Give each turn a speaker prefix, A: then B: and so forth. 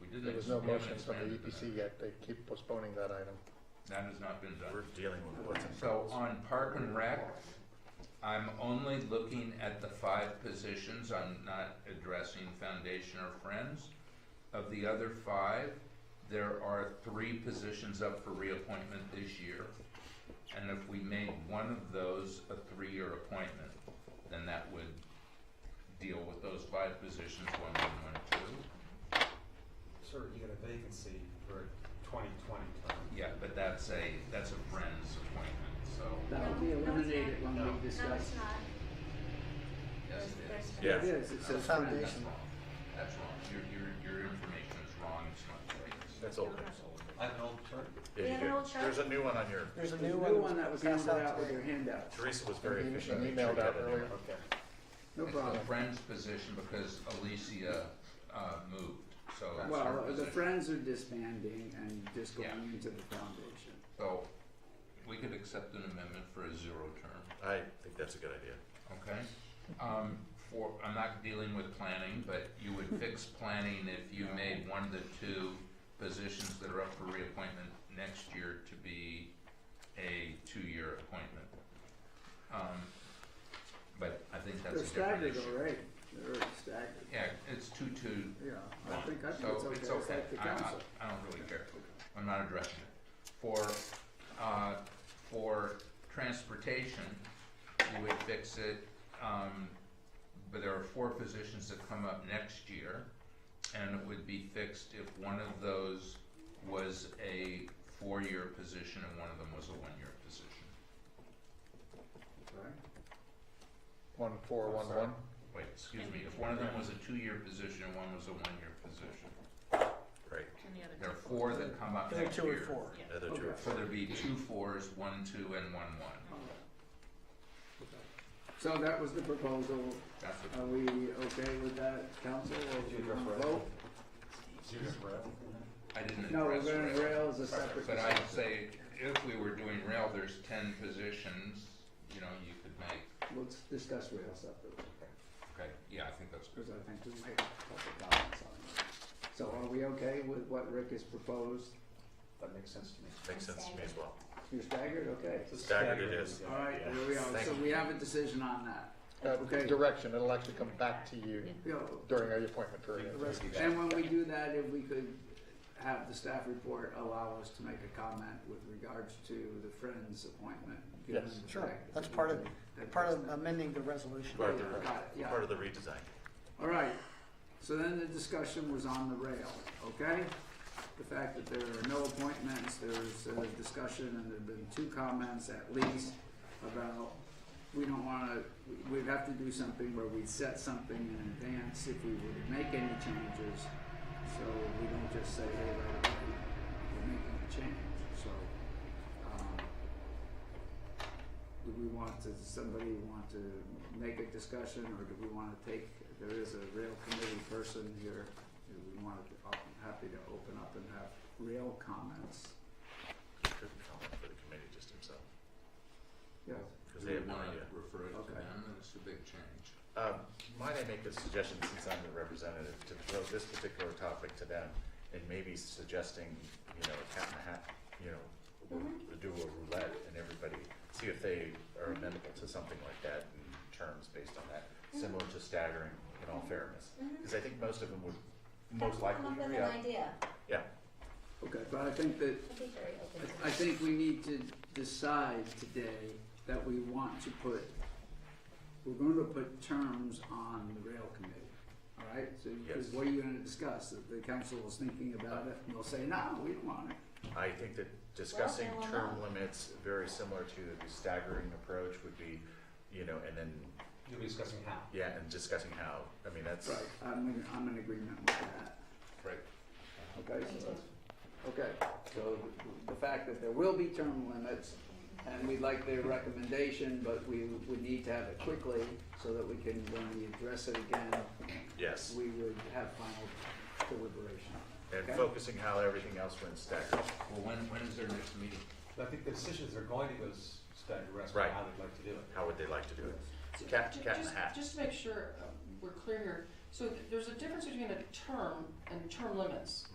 A: there's no
B: We haven't
A: motion from the E
B: expanded to
A: EPC yet, they keep postponing that item.
B: That has not been done.
C: We're dealing with what's in
B: So
C: front of us.
B: on Park and Rec, I'm only looking at the five positions, I'm not addressing Foundation or Friends. Of the other five, there are three positions up for reappointment this year. And if we made one of those a three-year appointment, then that would deal with those five positions, one, one, one, two.
D: Sir, you got a vacancy for twenty twenty term.
B: Yeah, but that's a, that's a Friends appointment, so,
E: That'll be eliminated when we discuss.
B: yes, it is.
C: Yeah.
E: It is, it says.
B: That's
A: Foundation,
B: wrong. That's wrong. Your, your, your information is wrong. It's not right.
C: That's old.
D: I have an old term.
C: Yeah,
F: We
C: you
F: have an
C: do.
F: old chart.
C: There's a new one on your,
A: there's a
E: The
A: new one.
E: new one that was handed
A: passed
E: out with
A: today.
E: your handout,
C: Teresa was very
A: Maybe she
C: efficient. Make sure
A: emailed
C: you
A: out
C: had a new
A: earlier.
C: one.
D: Okay.
E: no
B: It's the
E: problem.
B: friend's position because Alicia, uh, moved, so that's her
E: Well, the
B: position.
E: Friends are disbanding and just going
B: Yeah.
E: into the foundation.
B: So, we could accept an amendment for a zero term,
C: I think that's a good idea.
B: okay? Um, for, I'm not dealing with planning, but you would fix planning if you made one of the two positions that are up for reappointment next year to be a two-year appointment. Um, but I think that's
E: They're
B: a different
E: staggered
B: issue.
E: already, they're staggered,
B: Yeah, it's two, two,
E: yeah, I think, I think
B: so
E: it's
B: it's
E: okay, it's
B: okay.
E: like the
B: I, I,
E: council.
B: I don't really care. I'm not addressing it. For, uh, for transportation, you would fix it, um, but there are four positions that come up next year. And it would be fixed if one of those was a four-year position and one of them was a one-year position.
E: Right?
A: One four one one,
B: Wait, excuse me, if one of them was a two-year position and one was a one-year position.
C: Right.
F: And the other
B: There are
F: two.
B: four that come up next year.
C: The Other two.
E: Okay.
C: are
B: So there'd be two fours, one two, and one one.
E: So that was the proposal,
B: That's what
E: are we okay with that, council, or do
D: Did
E: you
D: you address
E: wanna
D: rail?
E: vote?
B: I didn't
E: No, we're
B: address
E: gonna,
B: rail.
E: rail is a separate.
B: But I'd
E: discussion.
B: say if we were doing rail, there's ten positions, you know, you could make,
E: Let's discuss rail separately,
B: okay, yeah, I think that's good.
E: because I think we made a couple comments on that. So are we okay with what Rick has proposed?
D: That makes sense to me.
C: Makes sense to me as well.
E: You're staggered, okay.
C: Staggered it is.
E: All right, there we are,
C: Thank
E: so
C: you.
E: we have a decision on that.
A: uh,
E: Okay.
A: direction, it'll actually come back to you
E: You know,
A: during your appointment period.
E: And when we do that, if we could have the staff report allow us to make a comment with regards to the Friends appointment. given
A: Yes.
E: the
G: Sure,
E: fact that
G: that's
E: we
G: part of,
E: did that
G: part of
E: just now.
G: amending the resolution.
C: Part of the,
E: Got it, yeah.
C: part of the redesign.
E: All right, so then the discussion was on the rail, okay? The fact that there are no appointments, there's a discussion, and there've been two comments at least about, we don't wanna, we- we'd have to do something where we set something in advance if we were to make any changes. So we don't just say, hey, right away, we're making a change, so, um, do we want to, does somebody want to make a discussion, or do we wanna take, there is a rail committee person here, do we want to, I'm happy to open up and have rail comments.
C: Good comment for the committee just himself,
E: Yeah,
C: because they have
B: Mm-hmm.
C: no idea.
B: Refer it to
E: Okay.
B: them, it's a big change.
C: Um, might I make a suggestion, since I'm the representative, to throw this particular topic to them, and maybe suggesting, you know, a cat and a hat, you know, we'll do a roulette, and everybody, see if they are amenable to something like that in terms based on that, similar to staggering, in all fairness, because I think most of them would most likely,
F: Come up with an
C: yeah,
F: idea.
C: yeah,
E: okay, but I think that,
F: I'd be very open to
E: I- I think we need to decide today that we want to put, we're going to put terms on the rail committee, all right? So, because
C: Yes.
E: what are you gonna discuss, That the council is thinking about it, and they'll say, no, we don't want it.
C: I think that discussing
F: Well, then we'll
C: term limits, very similar to the staggering approach would be, you know, and then,
D: You'll be discussing how.
C: yeah, and discussing how, I mean, that's,
E: Right, I'm, in- I'm in agreement with that.
B: Right.
E: Okay, so that's, okay, so the fact that there will be term limits, and we'd like their recommendation, but we would need to have it quickly, so that we can, when we address it again,
C: yes.
E: we would have final deliberation.
C: And
E: Okay.
C: focusing how everything else went staggered.
B: Well, when, when is their next meeting?
D: But I think the decisions are going to go s- staggered rest,
C: Right.
D: how they'd like to do it.
C: How would they like to do it?
H: So
C: Cat-
H: ju-
C: cat in
H: just-
C: a hat.
H: Just to make sure uh, we're clear here, so th- there's a difference between a term and term limits.